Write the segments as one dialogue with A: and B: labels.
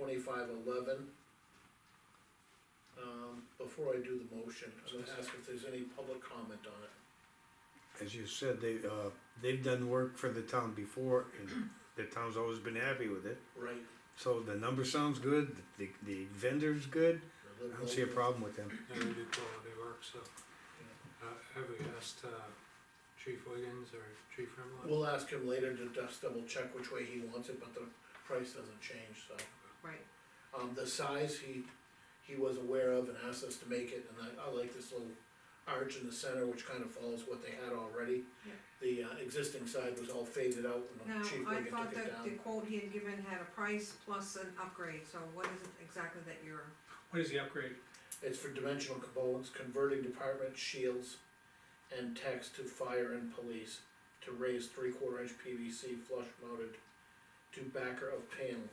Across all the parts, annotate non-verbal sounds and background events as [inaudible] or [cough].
A: twenty-five eleven. Um, before I do the motion, I'm gonna ask if there's any public comment on it.
B: As you said, they, uh, they've done work for the town before and the town's always been happy with it.
A: Right.
B: So the number sounds good, the, the vendor's good,
A: the
B: I don't see a
A: local-
B: problem with them.
C: they do quality work, so. Uh, have we asked, uh, Chief Wiggins or Chief Remlin?
A: We'll ask him later to just double check which way he wants it, but the price doesn't change, so.
D: Right,
A: Um, the size he, he was aware of and asked us to make it, and I, I like this little arch in the center, which kind of follows what they had already.
D: Yeah.
A: The, uh, existing side was all faded out,
D: now,
A: and Chief
D: I
A: Wiggin
D: thought
A: took it
D: that the
A: down.
D: quote he had given had a price plus an upgrade, so what is it exactly that you're,
E: What is the upgrade?
A: It's for dimensional components, converting department shields and text to fire and police to raise three-quarter inch PVC flush mounted to backer of panel.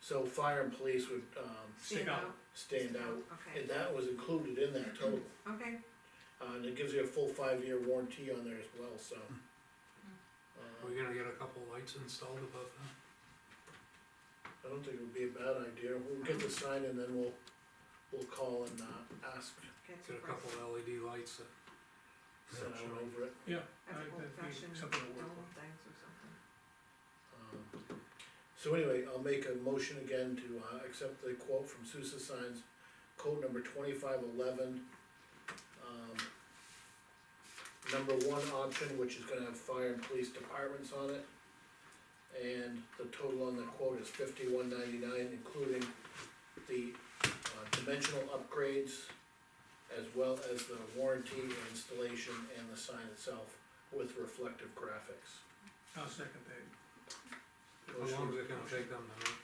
A: So fire and police would, um,
E: Stick
D: Stand
E: out.
D: out.
A: stand out,
D: okay,
A: and that was included in that total.
D: okay,
A: Uh, and it gives you a full five-year warranty on there as well, so.
C: We're
A: Uh,
C: gonna get a couple lights installed above them.
A: I don't think it would be a bad idea, we'll get the sign and then we'll, we'll call and, uh, ask,
D: get some
C: Get a
D: price.
C: couple LED lights that
A: send out over it.
E: Yeah.
D: That's
E: I-
D: old
E: uh, that'd be
D: fashioned,
E: something to work
D: old
E: on.
D: things or something.
A: Um, So anyway, I'll make a motion again to, uh, accept the quote from Sousa Signs, quote number twenty-five eleven. um, Number one option, which is gonna have fire and police departments on it. And the total on the quote is fifty-one ninety-nine, including the, uh, dimensional upgrades. As well as the warranty installation and the sign itself with reflective graphics.
E: I'll second that.
C: How long is it gonna take them to make?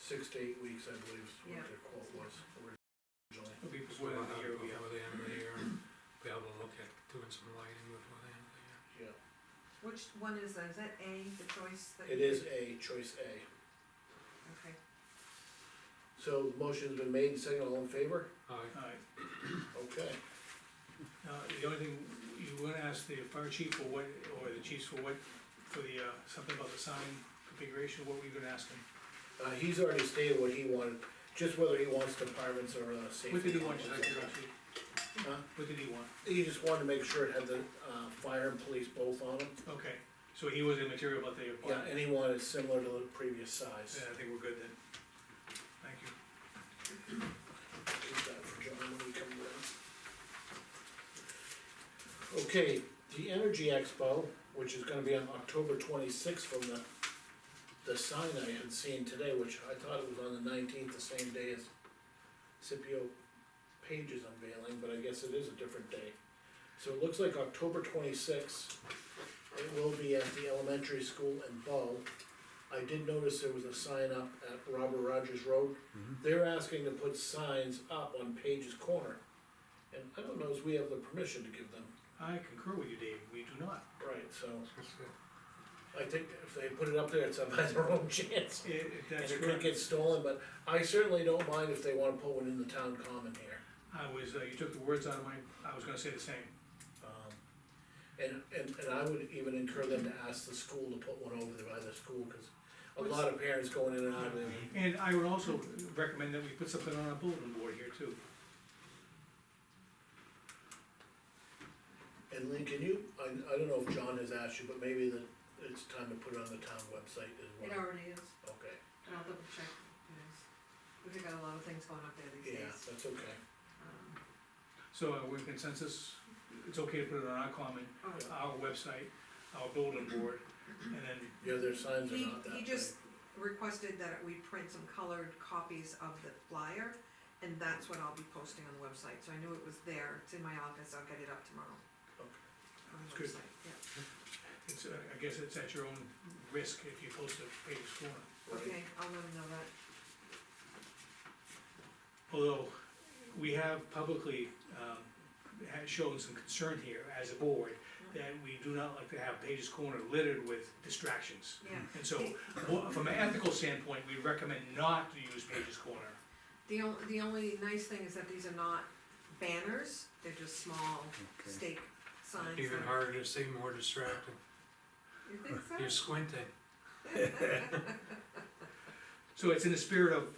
A: Six to eight weeks, I believe, is
D: Yeah.
A: what their quote was originally.
E: It'll be before
C: We'll have
E: the end of the year
C: it
E: will be out.
C: Before the end of the year, and [clears throat] be able to look at doing some lighting before the end of the
A: Yeah,
C: year.
D: Which one is that, is that A, the choice that?
A: it
D: you-
A: is A, choice A.
D: Okay,
A: So the motion's been made, second, all in favor?
C: Aye.
E: All right.
A: Okay.
E: Now, the only thing, you wanna ask the fire chief for what, or the chiefs for what, for the, uh, something about the sign configuration, what were you gonna ask him?
A: Uh, he's already stated what he wanted, just whether he wants departments or, uh, safety.
E: What did he want, just out of
A: companies.
E: curiosity?
A: Huh?
E: What did he want?
A: He just wanted to make sure it had the, uh, fire and police both on it.
E: Okay, so he wasn't material about the
A: Yeah,
E: apartment?
A: and he wanted it similar to the previous size.
E: Yeah, I think we're good then. Thank you.
A: Keep that for John when we come down. Okay, the Energy Expo, which is gonna be on October twenty-sixth from the, the sign I had seen today, which I thought it was on the nineteenth, the same day as Scipio Page's unveiling, but I guess it is a different day. So it looks like October twenty-sixth, it will be at the elementary school in Bow. I did notice there was a sign up at Robert Rogers Road
E: Mm-hmm.
A: they're asking to put signs up on Page's Corner. And I don't know if we have the permission to give them.
E: I concur with you, Dave, we do not.
A: Right. So,
C: That's it.
A: I think if they put it up there, it's up [laughs] by their own chance.
E: It, it-
A: And
E: that's
A: it could
E: correct.
A: get stolen, but I certainly don't mind if they wanna put one in the town common here.
E: I was, uh, you took the words out of my, I was gonna say the same.
A: Um, And, and, and I would even encourage them to ask the school to put one over there by the school, cause a lot of parents going in and out of there.
E: And I would also recommend that we put something on a bulletin board here too.
A: And Lynn, can you, I, I don't know if John has asked you, but maybe that it's time to put it on the town website as
D: it
A: well.
D: already is,
A: Okay,
D: and I'll double check, it is. We've got a lot of things going up there these
A: yeah,
D: days.
A: that's okay.
D: Um,
E: So uh, we're in consensus, it's okay to put it on our common,
D: oh,
E: our website, our bulletin board, and then,
A: Yeah, their signs are
D: He,
A: not that big.
D: he just requested that we print some colored copies of the flyer, and that's what I'll be posting on the website, so I knew it was there, it's in my office, I'll get it up tomorrow.
A: Okay.
D: On the
E: That's good.
D: website, yeah,
E: it's, uh, I guess it's at your own risk if you post a page corner.
A: Right.
D: okay, I'll let him know that,
E: Although, we have publicly, um, had shown some concern here as a board, that we do not like to have Page's Corner littered with distractions.
D: yeah.
E: And so, wha- from an ethical standpoint, we recommend not to use Page's Corner.
D: The only, the only nice thing is that these are not banners, they're just small
B: Okay.
D: stake signs.
C: uh, Even
D: that-
C: harder to see, more distracting.
D: You think so?
C: You're squinting.
E: So it's in the spirit of